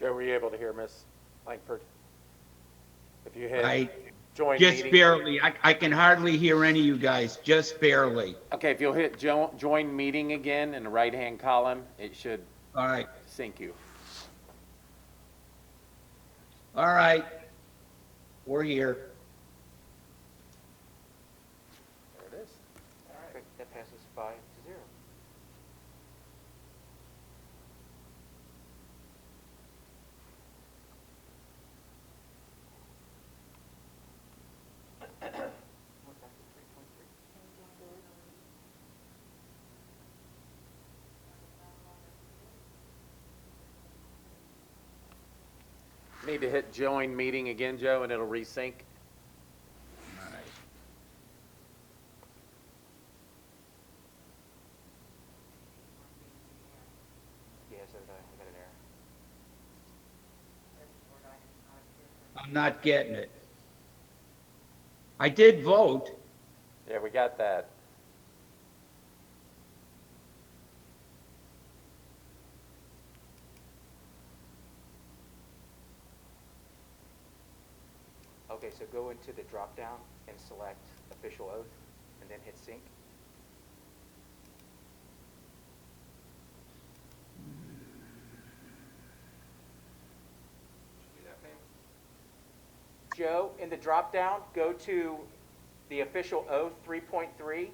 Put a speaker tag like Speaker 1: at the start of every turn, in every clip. Speaker 1: Were you able to hear Miss Langford? If you
Speaker 2: I
Speaker 1: hit join
Speaker 2: just
Speaker 1: meeting.
Speaker 2: barely, I, I can hardly hear any of you guys, just barely.
Speaker 1: Okay, if you'll hit jo- join meeting again in the right-hand column, it should
Speaker 2: All right,
Speaker 1: sync you.
Speaker 2: all right. We're here.
Speaker 1: There it is.
Speaker 3: Great, That passes five to zero. Went back to three point three.
Speaker 1: Need to hit join meeting again, Joe, and it'll resync.
Speaker 2: All right.
Speaker 3: Yeah, so did I, I got an error.
Speaker 2: I'm not getting it. I did vote.
Speaker 1: Yeah, we got that.
Speaker 3: Okay, so go into the drop-down and select official oath, and then hit sync. Joe, in the drop-down, go to the official oath three point three.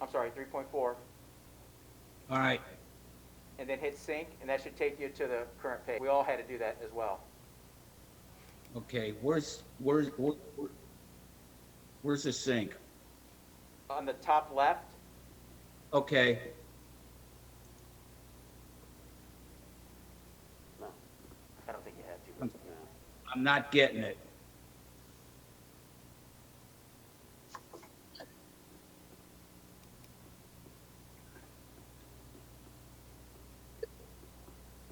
Speaker 3: I'm sorry, three point four,
Speaker 2: All right,
Speaker 3: and then hit sync, and that should take you to the current page. We all had to do that as well.
Speaker 2: okay, where's, where's, where- where- where's the sink?
Speaker 3: On the top left,
Speaker 2: Okay,
Speaker 3: I don't think you had to.
Speaker 2: I'm not getting it.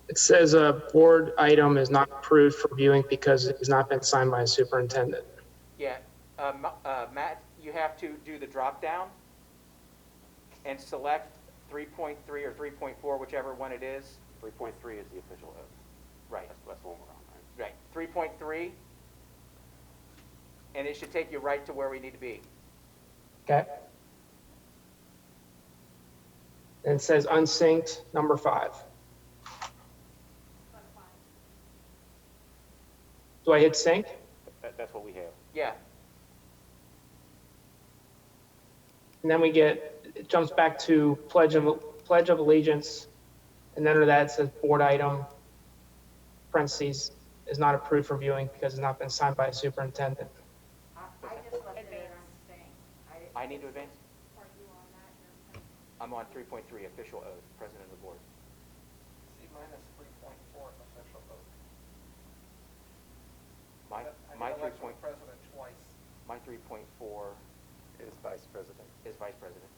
Speaker 4: It says a board item is not approved for viewing because it has not been signed by a superintendent.
Speaker 3: Yeah, uh, Ma- uh, Matt, you have to do the drop down and select 3.3 or 3.4, whichever one it is.
Speaker 5: Three point three is the official oath.
Speaker 3: Right,
Speaker 5: That's, that's the one we're on, right?
Speaker 3: right, 3.3. And it should take you right to where we need to be.
Speaker 4: Okay? And it says unsynced, number five. Do I hit sync?
Speaker 5: That, that's what we have.
Speaker 3: Yeah,
Speaker 4: And then we get, it jumps back to pledge of, pledge of allegiance. And then under that it says board item, parentheses, is not approved for viewing because it's not been signed by a superintendent.
Speaker 6: I I just left it on staying.
Speaker 3: I need to advance.
Speaker 6: Are you on that? You're-
Speaker 3: I'm on 3.3, official oath, president of the board. See, minus 3.4 official oath. My, my 3.4. President twice. My 3.4
Speaker 1: Is vice president.
Speaker 3: is vice president.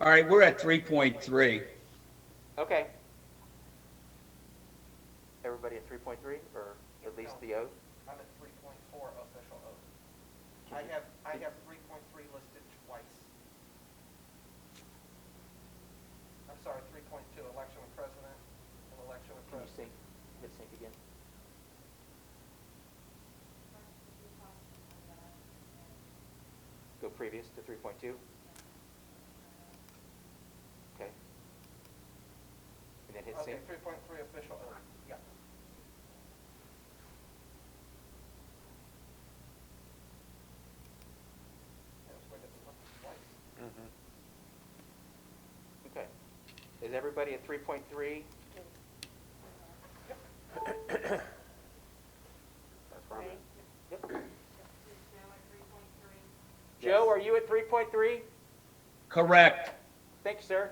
Speaker 2: All right, we're at 3.3.
Speaker 3: Okay. Everybody at three point three, or at least the oath?
Speaker 7: I'm at three point four official oath. I have, I have three point three listed twice. I'm sorry, three point two, election of president and election of
Speaker 3: Can you sync, hit
Speaker 7: president.
Speaker 3: sync again? Go previous to three point two? Okay. And then hit sync?
Speaker 7: Okay, three point three official oath, yeah. That's where it's listed twice.
Speaker 3: Okay. Is everybody at three point three?
Speaker 5: That's where I'm at.
Speaker 3: Joe, are you at three point three?
Speaker 2: Correct.
Speaker 3: Thank you, sir.